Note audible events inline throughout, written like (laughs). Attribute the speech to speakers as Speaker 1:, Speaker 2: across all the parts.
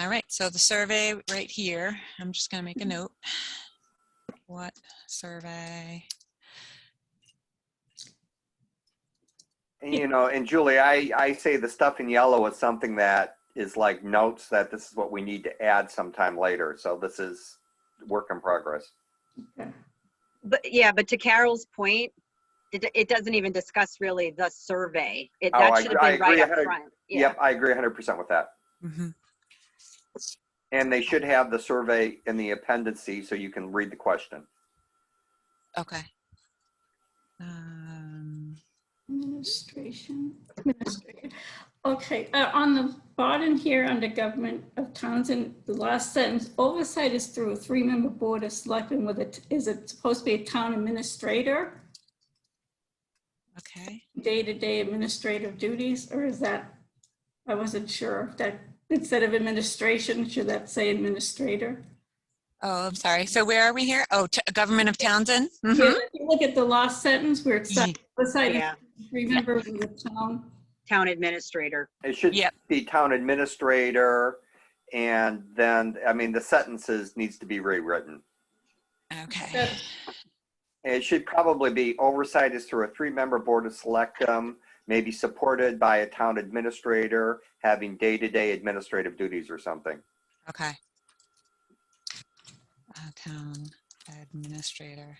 Speaker 1: All right, so the survey right here, I'm just gonna make a note. What survey?
Speaker 2: You know, and Julie, I, I say the stuff in yellow is something that is like notes that this is what we need to add sometime later. So this is work in progress.
Speaker 3: But yeah, but to Carol's point, it, it doesn't even discuss really the survey. It,
Speaker 2: Oh, I
Speaker 3: that should have
Speaker 2: agree- I
Speaker 3: been right
Speaker 2: agree.
Speaker 3: up
Speaker 2: I had a-
Speaker 3: front. Yeah,
Speaker 2: Yep, I agree hundred percent with that.
Speaker 1: Mhm.
Speaker 2: And they should have the survey in the appendices so you can read the question.
Speaker 1: Okay. Um,
Speaker 4: Administration, administrator. Okay, uh, on the bottom here, under government of Townsend, the last sentence, oversight is through a three-member board of selectmen with it, is it supposed to be a town administrator?
Speaker 1: Okay,
Speaker 4: Day-to-day administrative duties, or is that, I wasn't sure if that, instead of administration, should that say administrator?
Speaker 1: oh, I'm sorry. So where are we here? Oh, T- Government of Townsend?
Speaker 4: Yeah,
Speaker 1: Mhm.
Speaker 4: if you Look at the last sentence where it's,
Speaker 1: Ye-
Speaker 4: oversight is
Speaker 3: yeah,
Speaker 4: three members of the town.
Speaker 3: town administrator.
Speaker 2: It should
Speaker 1: Yep.
Speaker 2: be town administrator. And then, I mean, the sentences needs to be rewritten.
Speaker 1: Okay,
Speaker 4: That's
Speaker 2: It should probably be oversight is through a three-member board of selectmen, maybe supported by a town administrator, having day-to-day administrative duties or something.
Speaker 1: okay. Uh, Town Administrator.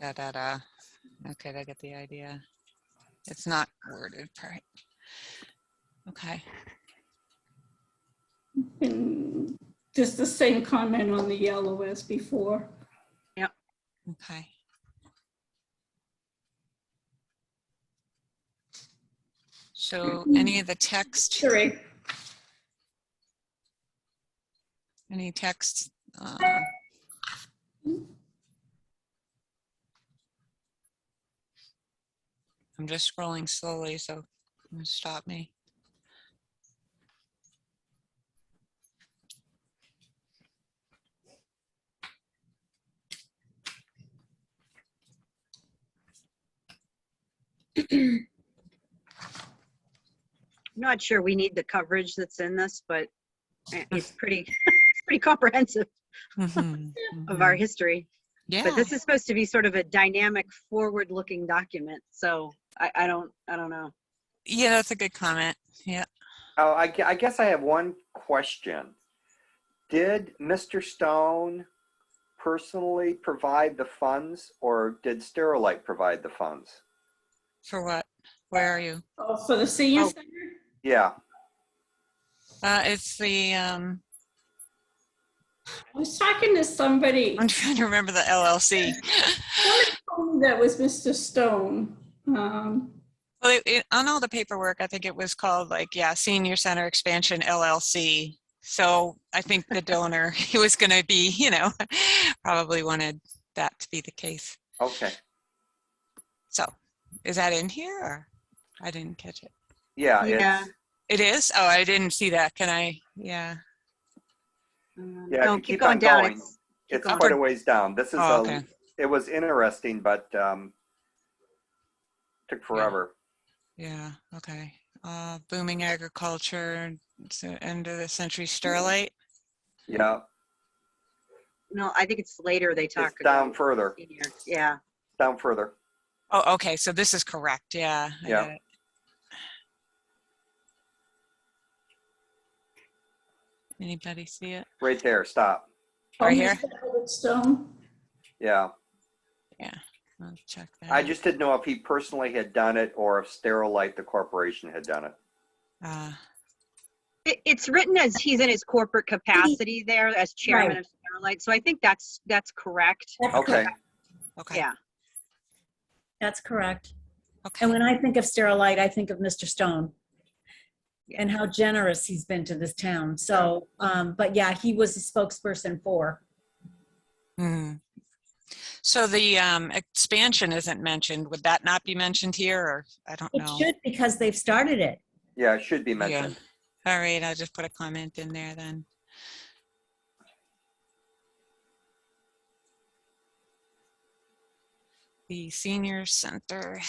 Speaker 1: Da, da, da. Okay, I get the idea. It's not worded, right? Okay.
Speaker 4: And just the same comment on the yellow as before.
Speaker 1: Okay. So any of the text,
Speaker 4: Sorry,
Speaker 1: any Um, text? uh, I'm just scrolling slowly, so don't stop me.
Speaker 3: I'm Not sure we need the coverage that's in this, but eh, it's pretty, it's pretty comprehensive (laughs)
Speaker 1: Mhm,
Speaker 3: of our
Speaker 1: mhm.
Speaker 3: history. But
Speaker 1: Yeah,
Speaker 3: this is supposed to be sort of a dynamic, forward-looking document, so I, I don't, I don't know.
Speaker 1: yeah, that's a good comment. Yeah.
Speaker 2: Oh, I, gue- I guess I have one question. Did Mr. Stone personally provide the funds or did Sterilite provide the funds?
Speaker 1: For what? Where are you?
Speaker 4: oh, for the senior
Speaker 3: Oh.
Speaker 4: center?
Speaker 2: Yeah,
Speaker 1: Uh, it's the, um, (laughs)
Speaker 4: I was talking to somebody,
Speaker 1: I'm trying to remember the LLC.
Speaker 4: somebody told me that was Mr. Stone. Um,
Speaker 1: Well, it, it, on all the paperwork, I think it was called like, yeah, Senior Center Expansion LLC. So I think the donor, (laughs) he was going to be, you know, (laughs) probably wanted that to be the case.
Speaker 2: okay.
Speaker 1: So is that in here or I didn't catch it?
Speaker 2: Yeah,
Speaker 3: Yeah.
Speaker 2: Uh,
Speaker 1: It
Speaker 2: it's,
Speaker 1: is? Oh, I didn't see that. Can I? Yeah.
Speaker 3: Um,
Speaker 2: Yeah, if
Speaker 3: no,
Speaker 2: you keep on
Speaker 3: going down.
Speaker 2: going,
Speaker 3: It's- keep
Speaker 2: it's
Speaker 3: going.
Speaker 2: quite a ways down. This is,
Speaker 1: Oh,
Speaker 2: a.
Speaker 1: okay.
Speaker 2: it was interesting, but um took forever.
Speaker 1: Yeah. Okay. Uh, booming agriculture, it's the end of the century Sterlite.
Speaker 2: Yeah,
Speaker 3: No, I think it's later they talk.
Speaker 2: it's down
Speaker 3: about
Speaker 2: further,
Speaker 3: senior. Yeah,
Speaker 2: down further.
Speaker 1: Oh, okay. So this is correct. Yeah. I
Speaker 2: Yeah.
Speaker 1: got it. Anybody see it?
Speaker 2: Right there, stop.
Speaker 1: Right here?
Speaker 4: Mr. Stone,
Speaker 2: Yeah,
Speaker 1: I'll check that.
Speaker 3: Mm.
Speaker 2: I just didn't know if he personally had done it or if Sterilite, the corporation, had done
Speaker 3: (laughs)
Speaker 2: it.
Speaker 1: Uh,
Speaker 3: It- it's written as he's in his corporate capacity there as chairman of Starlight, so I think that's, that's correct.
Speaker 2: Okay,
Speaker 1: okay.
Speaker 3: Yeah,
Speaker 5: That's correct.
Speaker 1: Okay.
Speaker 5: And when I think of Sterilite, I think of Mr. Stone and how generous he's been to this town. So, um, but yeah, he was a spokesperson for.
Speaker 1: Hmm. So the um, expansion isn't mentioned. Would that not be mentioned here or I don't
Speaker 5: It
Speaker 1: know?
Speaker 5: should because they've started it.
Speaker 2: yeah, it should be
Speaker 1: Yeah.
Speaker 2: mentioned.
Speaker 1: All right, I'll just put a comment in there then. The senior center